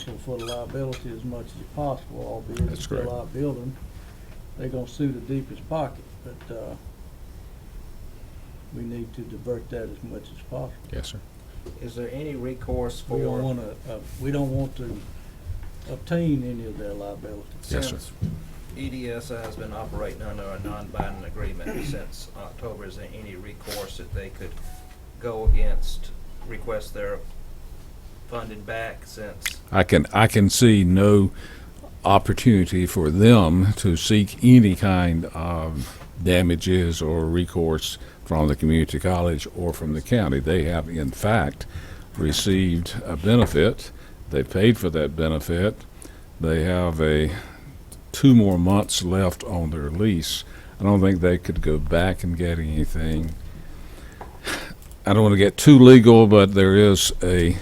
for the liability as much as possible, albeit That's it's still correct. our building. They're gonna sue the deepest pocket, but, uh, we need to divert that as much as possible. Yes, sir. Is there any recourse We don't for, wanna, uh, we don't want to obtain any of their liability. Yes, sir. since E EDSI has been operating under a non-binding agreement since October, is there any recourse that they could go against, request their funding back since? I can, I can see no opportunity for them to seek any kind of damages or recourse from the community college or from the county. They have, in fact, received a benefit. They paid for that benefit. They have a, two more months left on their lease. I don't think they could go back and get anything. I don't want to get too legal, but there is a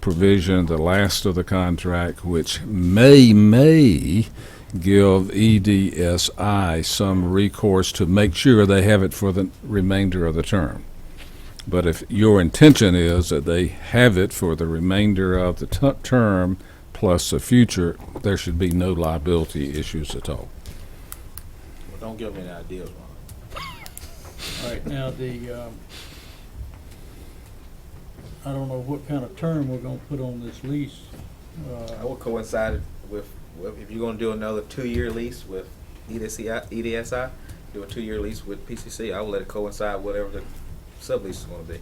provision, the last of the contract, which may, may give E EDSI some recourse to make sure they have it for the remainder of the term. But if your intention is that they have it for the remainder of the tu- term plus the future, there should be no liability issues at all. Well, don't give me any ideas, Ron. All right, now the, um, I don't know what kind of term we're gonna put on this lease. Uh, I would coincide with, with- if you're gonna do another two-year lease with E EDSI, EDSI, do a two-year lease with PCC, I would let it coincide whatever the sublease is gonna be.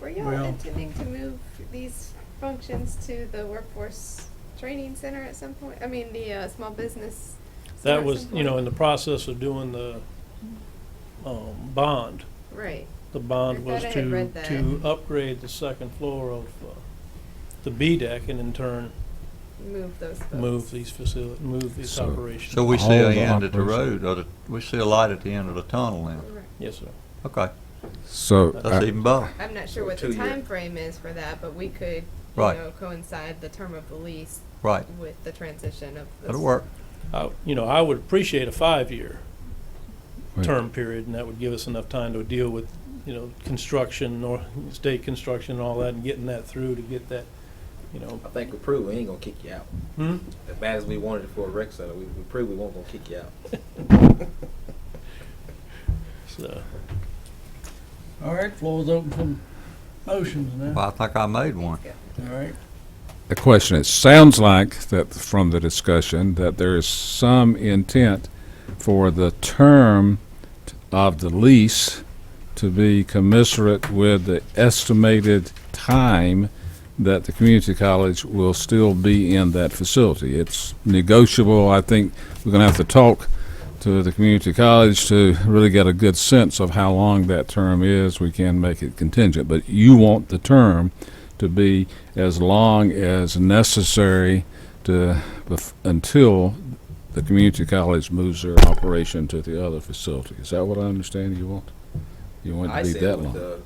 Were y'all Well- intending to move these functions to the workforce training center at some point? I mean, the uh, small business. center That at was, some you know, in point? the process of doing the, um, bond, Right. the I bond thought was I had to, read that. to upgrade the second floor of, uh, the B deck and in turn Move those. Folks. move these facility, move these So- operations. So we All see a the end at the operations. road, or the, we see a light at the end of the tunnel then. Right. Yes, sir. Okay, So, that's even better. I'm not sure what the Two year. time frame is for that, but we could, you Right. know, coincide the term of the lease Right, with the transition of. the that'll work. I, you know, I would appreciate a five-year Right. term period and that would give us enough time to deal with, you know, construction or state construction and all that and getting that through to get that, you know. I think we proved we ain't gonna kick you out. Hmm? As bad as we wanted it for a rec center, we, we proved we won't gonna kick you out. hmm? So, All right, floor's open for motions now. Well, I think I made one. Thanks, All right, the question, it sounds like that from the discussion, that there is some intent for the term of the lease to be commensurate with the estimated time that the community college will still be in that facility. It's negotiable. I think we're going to have to talk to the community college to really get a good sense of how long that term is. We can make it contingent, but you want the term to be as long as necessary to, bef- until the community college moves their operation to the other facility. Is that what I understand you want? You want I it to be said that with long?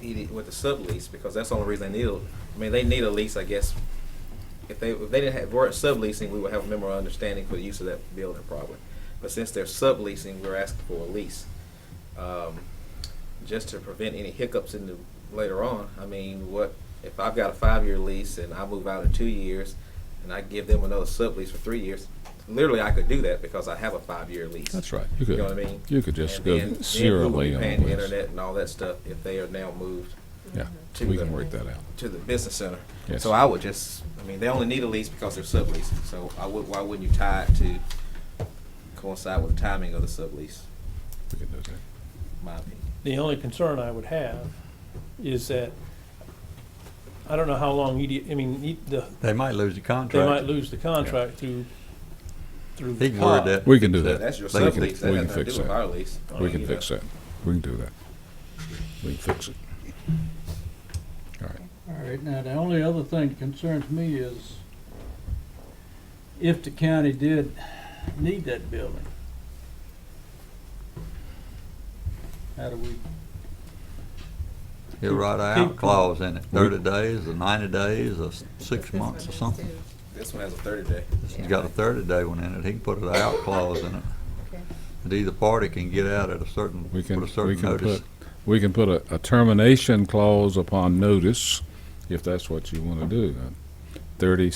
the ED with the sublease because that's the only reason they need. A, I mean, they need a lease, I guess. If they if they didn't have were subleasing, we would have a memorandum of understanding for the use of that building probably. But since they're subleasing, we're asking for a lease, um, just to prevent any hiccups in the later on. I mean, what if I've got a five year lease and I move out in two years, and I give them another sublease for three years? Literally, I could do that because I have a five year lease. That's right. You You know what I could, mean? you could just And go then- then who will be serially on paying the this. internet and all that stuff if they are now moved Yeah, to we can the, work that out. to the business center. Yes. So I would just, I mean, they only need a lease because they're subleasing, so I would, why wouldn't you tie it to coincide with the timing of the sublease, We can do that. in my opinion? The only concern I would have is that, I don't know how long ED, I mean, E- the, They might lose they the might contract. lose the contract through, through. He can word COD. that. We can do fix that. That's your They can- sublease, that we has can nothing to fix do with that. our lease. I We mean, can you know, fix that. We can do that. We can fix it. all right, now the only other thing that concerns me is if the county did need that building, how do we, He'll write a out clause in it, thirty days, or ninety days, or s- six This one months or has something. two. This one has a thirty day. He's got a thirty day one in it, he can put an out clause in it. Okay. That either party can get out at a certain, We with can, a we certain can notice. put, we can put a, a termination clause upon notice, if that's what you want to do. Uh, Thirty,